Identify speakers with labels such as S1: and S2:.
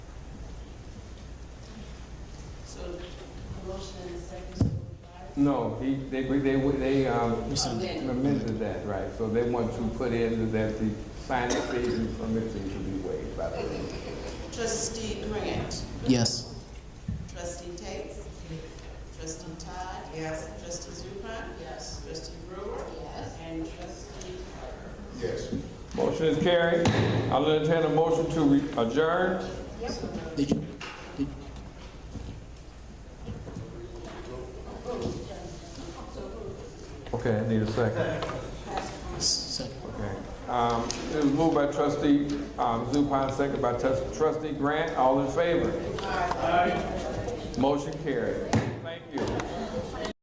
S1: No, he, they, they, they, um,
S2: Rescinded.
S1: amended that, right, so they want to put in that the signing fees and permit fees will be waived by the way.
S3: Trustee Grant.
S2: Yes.
S3: Trustee Tate. Trustee Todd. Yes. Trustee Zupan. Yes. Trustee Brewer. Yes. And trustee Carter.
S4: Yes.
S1: Motion is carried. I'll entertain a motion to re- adjourn.
S2: Did you, did,
S1: Okay, I need a second.
S2: second.
S1: Okay. Um, it was moved by trustee, um, Zupan, second by trus- trustee Grant, all in favor? Motion carried.